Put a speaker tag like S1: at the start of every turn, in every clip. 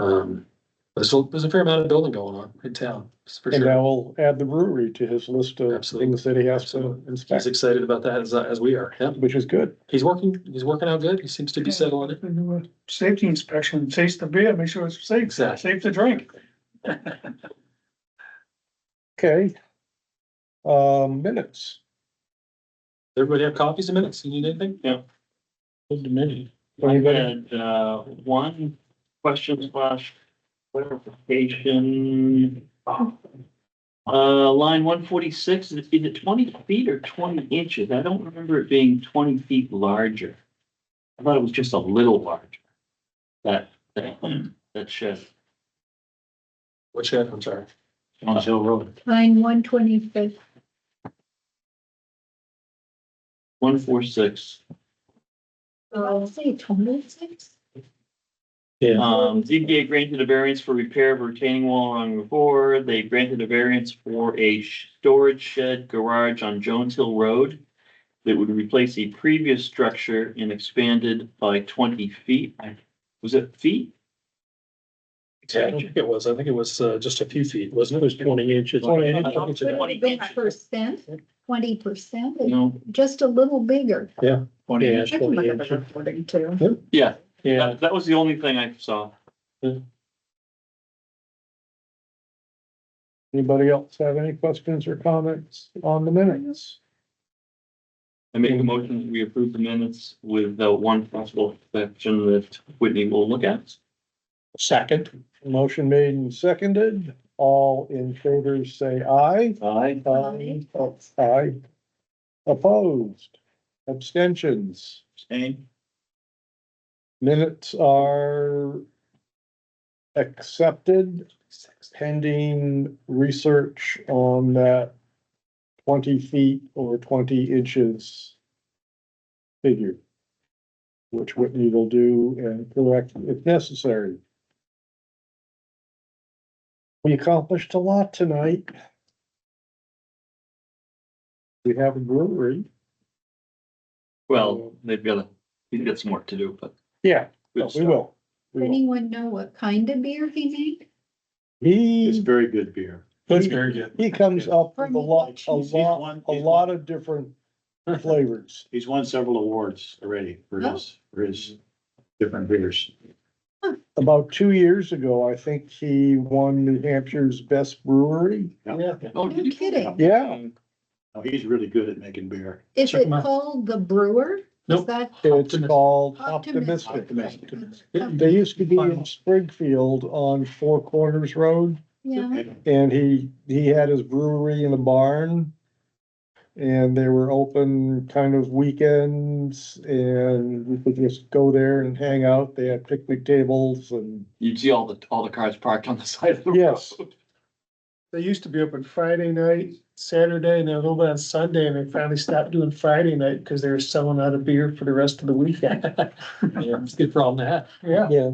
S1: Um, but so there's a fair amount of building going on in town, that's for
S2: And
S1: sure.
S2: I will add the brewery to his list of
S1: Absolutely.
S2: things that he has to
S1: Absolutely. He's
S2: inspect,
S1: excited about that as, as we are. Yeah,
S2: which is good.
S1: he's working, he's working out good. He seems to be settling it.
S3: We do a safety inspection, taste the beer, make sure it's safe,
S1: Exactly.
S3: safe to drink.
S2: Okay. Um, minutes.
S1: Everybody have copies of minutes? You need anything?
S4: Good to me. I
S2: Anybody?
S4: had, uh, one question slash clarification. Uh, line one forty-six, is it twenty feet or twenty inches? I don't remember it being twenty feet larger. I thought it was just a little larger. That, that, that shed
S1: Which head? I'm sorry.
S4: on Hill Road,
S5: Line one twenty-fifth,
S4: one four six.
S5: oh, I'll say twenty-six.
S4: Um, ZBA granted a variance for repair of retaining wall along the board. They granted a variance for a sh- storage shed garage on Jones Hill Road. That would replace a previous structure and expanded by twenty feet. I- Was it feet?
S1: Yeah, I don't think it was. I think it was, uh, just a few feet, wasn't it? It was twenty inches.
S2: 20 inches.
S4: Twenty inches.
S5: Percent, twenty percent,
S4: No,
S5: just a little bigger.
S2: Yeah,
S5: I can look up the recording too.
S4: yeah,
S2: Yeah,
S4: that, that was the only thing I saw.
S2: anybody else have any questions or comments on the minutes?
S4: I make
S2: Mm-hmm.
S4: a motion, that we approve the minutes with the one possible exception that Whitney will look at.
S2: Second. Motion made and seconded, all in favor say aye.
S4: Aye.
S5: Aye.
S2: Oh, Aye. Opposed, abstentions,
S4: Same.
S2: minutes are accepted pending research on that twenty feet or twenty inches figure, which Whitney will do and correct if necessary. We accomplished a lot tonight. We have a brewery.
S4: Well, they've got, they've got some work to do, but. uh,
S2: Yeah,
S4: good
S2: Oh, we
S4: stuff.
S2: will. We will.
S5: Anyone know what kind of beer he made?
S2: He.
S6: very good beer.
S2: That's
S1: very good.
S2: He comes up
S5: Or
S2: with a
S5: maybe
S2: lot, a
S6: He's
S2: lot,
S6: one-
S2: a
S6: he's
S2: lot of different flavors.
S6: He's won several awards already for
S2: Oh.
S6: his, for his different beers.
S2: About two years ago, I think he won New Hampshire's best brewery.
S1: Yeah.
S4: Oh,
S5: No kidding.
S2: Yeah.
S6: Now, Oh, he's really good at making beer.
S5: Is
S1: Check
S5: it
S1: 'em out.
S5: called the brewer? Is
S1: Nope.
S5: that-
S2: It's
S1: Optimistic.
S2: called
S5: Optimistic.
S2: Optimistic.
S6: Optimistic.
S2: They used to be in Springfield on Four Corners Road
S5: Yeah,
S6: And
S2: and he, he had his brewery in a barn. And they were open kind of weekends and we could just go there and hang out. They had picnic tables and
S4: You'd see all the, all the cars parked on the side of the road.
S2: Yes.
S3: They used to be open Friday night, Saturday, and then a little bit on Sunday, and they finally stopped doing Friday night because they were selling out of beer for the rest of the weekend.
S1: It's a good problem to have.
S3: Yeah.
S2: Yeah.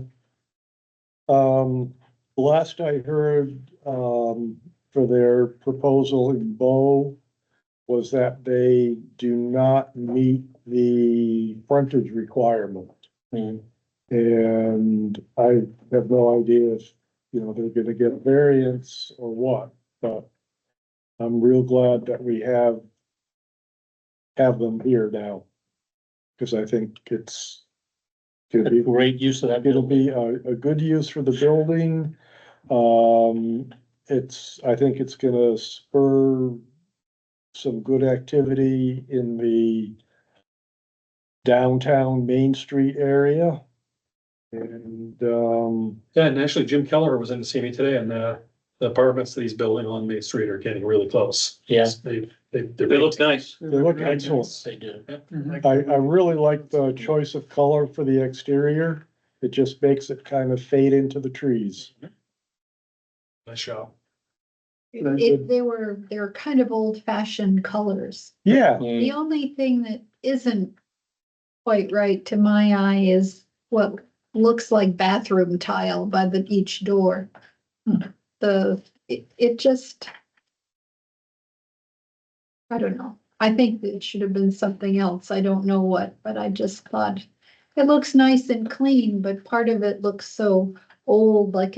S2: Um, last I heard, um, for their proposal in Bow was that they do not meet the frontage requirement.
S1: Hmm.
S2: And I have no idea if, you know, they're gonna get a variance or what, but I'm real glad that we have have them here now, because I think it's gonna be
S1: Great use of that.
S2: It'll be a, a good use for the building. Um, it's, I think it's gonna spur some good activity in the downtown Main Street area. And, um,
S1: Yeah, and actually Jim Keller was in to see me today and, uh, the apartments that he's building on Main Street are getting really close.
S4: Yeah.
S1: They, they, they're.
S4: They look nice.
S2: they look excellent.
S1: They do.
S2: I, I really like the choice of color for the exterior. It just makes it kind of fade into the trees.
S1: Nice job.
S2: Very
S5: it,
S2: good.
S5: they were, they're kind of old fashioned colors.
S2: Yeah,
S5: The only thing that isn't quite right to my eye is what looks like bathroom tile by the each door. Hmm. The, it, it just. I don't know. I think that it should have been something else. I don't know what, but I just thought it looks nice and clean, but part of it looks so old, like